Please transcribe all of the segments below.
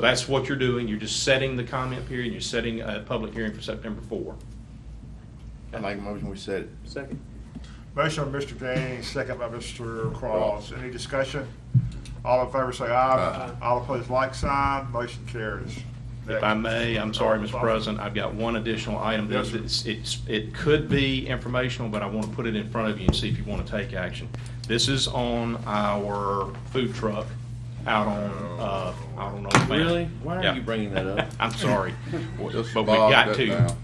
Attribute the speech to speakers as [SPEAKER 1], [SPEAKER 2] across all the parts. [SPEAKER 1] So that's what you're doing. You're just setting the comment period. You're setting a public hearing for September 4.
[SPEAKER 2] I make a motion, we set it.
[SPEAKER 3] Second.
[SPEAKER 4] Motion by Mr. Gaines, second by Mr. Cross. Any discussion? All in favor say aye. All opposed, like sign. Motion carries.
[SPEAKER 1] If I may, I'm sorry, Mr. President, I've got one additional item.
[SPEAKER 4] Yes, sir.
[SPEAKER 1] It's, it's- it could be informational, but I want to put it in front of you and see if you want to take action. This is on our food truck out on, uh, out on Old Man.
[SPEAKER 3] Really? Why are
[SPEAKER 1] Yeah.
[SPEAKER 3] you bringing that up?
[SPEAKER 1] I'm sorry, but
[SPEAKER 2] Just
[SPEAKER 1] we
[SPEAKER 2] bogged
[SPEAKER 1] got
[SPEAKER 2] it
[SPEAKER 1] to.
[SPEAKER 2] down.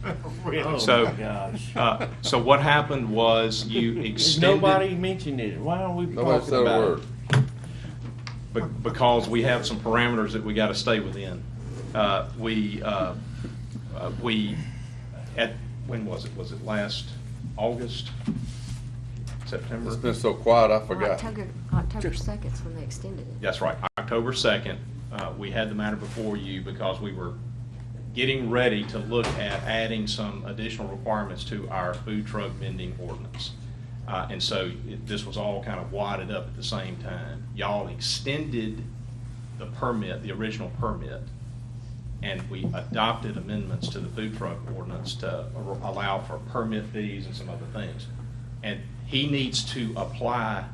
[SPEAKER 4] Really?
[SPEAKER 1] So-
[SPEAKER 3] Oh, my gosh.
[SPEAKER 1] Uh, So what happened was you extended.
[SPEAKER 3] Nobody mentioned it. Why aren't we
[SPEAKER 2] Nobody
[SPEAKER 3] talking
[SPEAKER 2] said a
[SPEAKER 3] about it?
[SPEAKER 2] word.
[SPEAKER 1] be- because we have some parameters that we got to stay within. Uh, We, uh, uh, we, at, when was it? Was it last August? September?
[SPEAKER 2] It's been so quiet, I
[SPEAKER 5] Well,
[SPEAKER 2] forgot.
[SPEAKER 5] October, October second's when they extended it.
[SPEAKER 1] That's right, October 2nd. uh, We had the matter before you because we were getting ready to look at adding some additional requirements to our food truck vending ordinance. Uh, And so it- this was all kind of wadded up at the same time. Y'all extended the permit, the original permit, and we adopted amendments to the food truck ordinance to allow for permit fees and some other things. And he needs to apply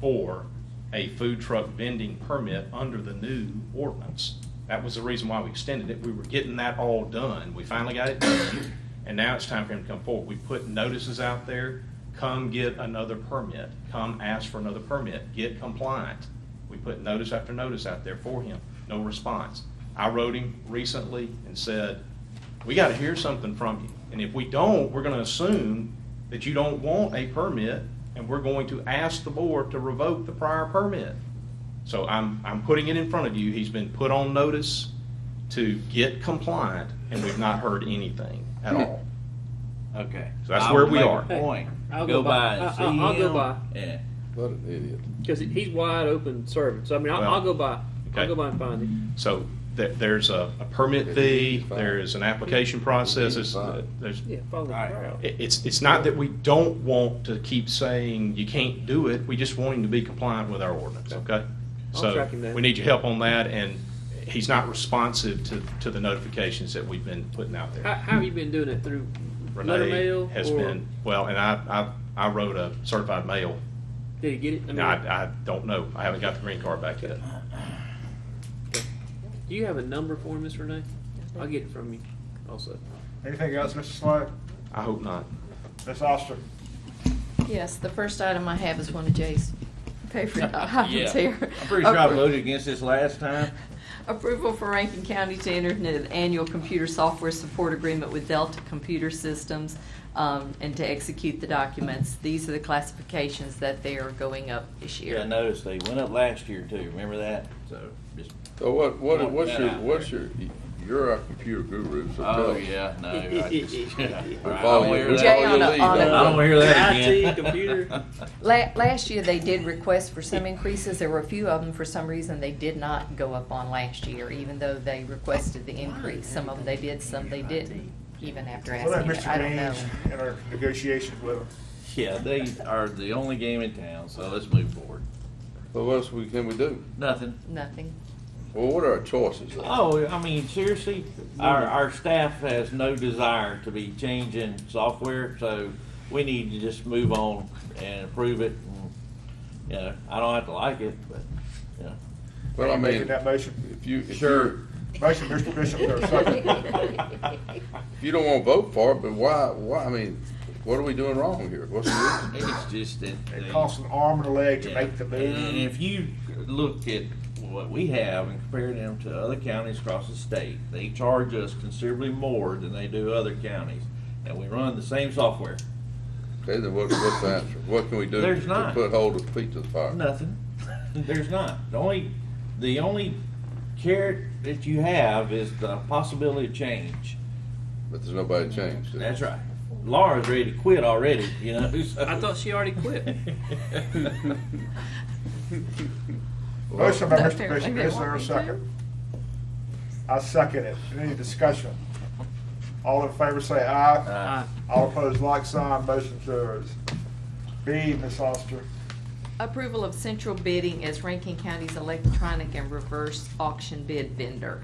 [SPEAKER 1] for a food truck vending permit under the new ordinance. That was the reason why we extended it. We were getting that all done. We finally got it done, and now it's time for him to come forward. We put notices out there, come get another permit, come ask for another permit, get compliant. We put notice after notice out there for him, no response. I wrote him recently and said, we gotta hear something from you. And if we don't, we're gonna assume that you don't want a permit, and we're going to ask the board to revoke the prior permit. So I'm, I'm putting it in front of you. He's been put on notice to get compliant, and we've not heard anything at all.
[SPEAKER 3] Okay.
[SPEAKER 1] So that's
[SPEAKER 3] I
[SPEAKER 1] where
[SPEAKER 3] will
[SPEAKER 1] we
[SPEAKER 3] make a
[SPEAKER 1] are.
[SPEAKER 3] Point.
[SPEAKER 6] I'll go by.
[SPEAKER 3] and
[SPEAKER 7] Uh,
[SPEAKER 6] I- I-
[SPEAKER 3] see
[SPEAKER 6] I'll go
[SPEAKER 3] him.
[SPEAKER 6] by.
[SPEAKER 3] Yeah.
[SPEAKER 2] What an idiot.
[SPEAKER 6] Because he's wide open serving. So I mean, I'll, I'll go by.
[SPEAKER 1] Okay.
[SPEAKER 6] I'll go by and find him.
[SPEAKER 1] So there, there's a, a permit fee, there is an application process, it's- there's,
[SPEAKER 6] Yeah, follow the
[SPEAKER 3] All right.
[SPEAKER 6] crowd.
[SPEAKER 1] It- It's, it's not that we don't want to keep saying you can't do it, we just want him to be compliant with our ordinance, okay?
[SPEAKER 6] I'll
[SPEAKER 1] So,
[SPEAKER 6] track him down.
[SPEAKER 1] we need your help on that, and he's not responsive to, to the notifications that we've been putting out
[SPEAKER 6] How,
[SPEAKER 1] there.
[SPEAKER 6] how have you been doing it through letter
[SPEAKER 1] Renee
[SPEAKER 6] mail?
[SPEAKER 1] has
[SPEAKER 6] or
[SPEAKER 1] been, well, and I, I, I wrote a certified mail,
[SPEAKER 6] Did he get it? I mean,
[SPEAKER 1] and I, I don't know, I haven't got the green card back yet.
[SPEAKER 6] Uh-huh. do you have a number for him, Miss Renee? I'll get it from you. Also,
[SPEAKER 4] Anything else, Mr. Slade?
[SPEAKER 1] I hope not.
[SPEAKER 4] Ms. Oster?
[SPEAKER 7] Yes, the first item I have is one of Jay's favorite items here.
[SPEAKER 3] I'm pretty sure I voted against this last time.
[SPEAKER 7] Approval for Rankin County to enter into an annual computer software support agreement with Delta Computer Systems um, and to execute the documents. These are the classifications that they are going up this year.
[SPEAKER 3] Yeah, I noticed they went up last year too. Remember that? So just.
[SPEAKER 2] So what, what,
[SPEAKER 3] Point
[SPEAKER 2] what's
[SPEAKER 3] that
[SPEAKER 2] your,
[SPEAKER 3] out
[SPEAKER 2] what's your, you're our computer guru, so tell
[SPEAKER 3] Oh
[SPEAKER 2] us.
[SPEAKER 3] yeah, no. I just,
[SPEAKER 2] We
[SPEAKER 3] I
[SPEAKER 2] follow
[SPEAKER 3] don't
[SPEAKER 2] you,
[SPEAKER 3] hear
[SPEAKER 2] we
[SPEAKER 3] that.
[SPEAKER 7] Jay
[SPEAKER 2] follow your
[SPEAKER 7] on a-
[SPEAKER 2] lead,
[SPEAKER 7] on a-
[SPEAKER 3] I
[SPEAKER 2] don't
[SPEAKER 3] don't
[SPEAKER 2] we?
[SPEAKER 3] hear that again.
[SPEAKER 6] IT, computer.
[SPEAKER 7] La- Last year, they did request for some increases. There were a few of them, for some reason, they did not go up on last year, even though they requested the increase. Some of them they did, some they didn't, even after
[SPEAKER 4] What about
[SPEAKER 7] asking. it.
[SPEAKER 4] Mr.
[SPEAKER 7] I don't know.
[SPEAKER 4] Gaines in our negotiations with him?
[SPEAKER 3] Yeah, they are the only game in town, so let's move forward.
[SPEAKER 2] So what else we, can we do?
[SPEAKER 3] Nothing.
[SPEAKER 7] Nothing.
[SPEAKER 2] Well, what are our choices? then?
[SPEAKER 3] Oh, I mean, seriously, our, our staff has no desire to be changing software, so we need to just move on and approve it. and, You know, I don't have to like it, but, you know.
[SPEAKER 2] Well,
[SPEAKER 4] Are
[SPEAKER 2] I
[SPEAKER 4] you Making
[SPEAKER 2] mean,
[SPEAKER 4] that motion?
[SPEAKER 2] if you, if
[SPEAKER 3] Sure.
[SPEAKER 2] you,
[SPEAKER 4] Motion, Mr. Bishop, there, second.
[SPEAKER 2] if you don't wanna vote for it, but why, why, I mean, what are we doing wrong here? What's the reason?
[SPEAKER 3] It's just that.
[SPEAKER 4] It
[SPEAKER 3] they-
[SPEAKER 4] costs an arm and a leg to
[SPEAKER 3] Yeah.
[SPEAKER 4] make the
[SPEAKER 3] And
[SPEAKER 4] move.
[SPEAKER 3] if you look at what we have and compare them to other counties across the state, they charge us considerably more than they do other counties, and we run the same software.
[SPEAKER 2] Okay, then what, what's the answer? What can we do
[SPEAKER 3] There's
[SPEAKER 2] to
[SPEAKER 3] not.
[SPEAKER 2] put hold of feet to the fire?
[SPEAKER 3] Nothing. There's not. The only, the only carrot that you have is the possibility of change.
[SPEAKER 2] But there's nobody changed.
[SPEAKER 3] That's right. Laura's ready to quit already, you know.
[SPEAKER 1] Uh,
[SPEAKER 3] so-
[SPEAKER 6] I thought she already quit.
[SPEAKER 4] Motion by Mr.
[SPEAKER 7] Apparently
[SPEAKER 4] Bishop,
[SPEAKER 7] they
[SPEAKER 4] is there a
[SPEAKER 7] want me to.
[SPEAKER 4] second? I second it. Any discussion? All in favor say aye.
[SPEAKER 3] Uh,
[SPEAKER 4] All opposed, like sign, motion carries. B, Ms. Oster.
[SPEAKER 7] Approval of central bidding as Rankin County's electronic and reverse auction bid vendor.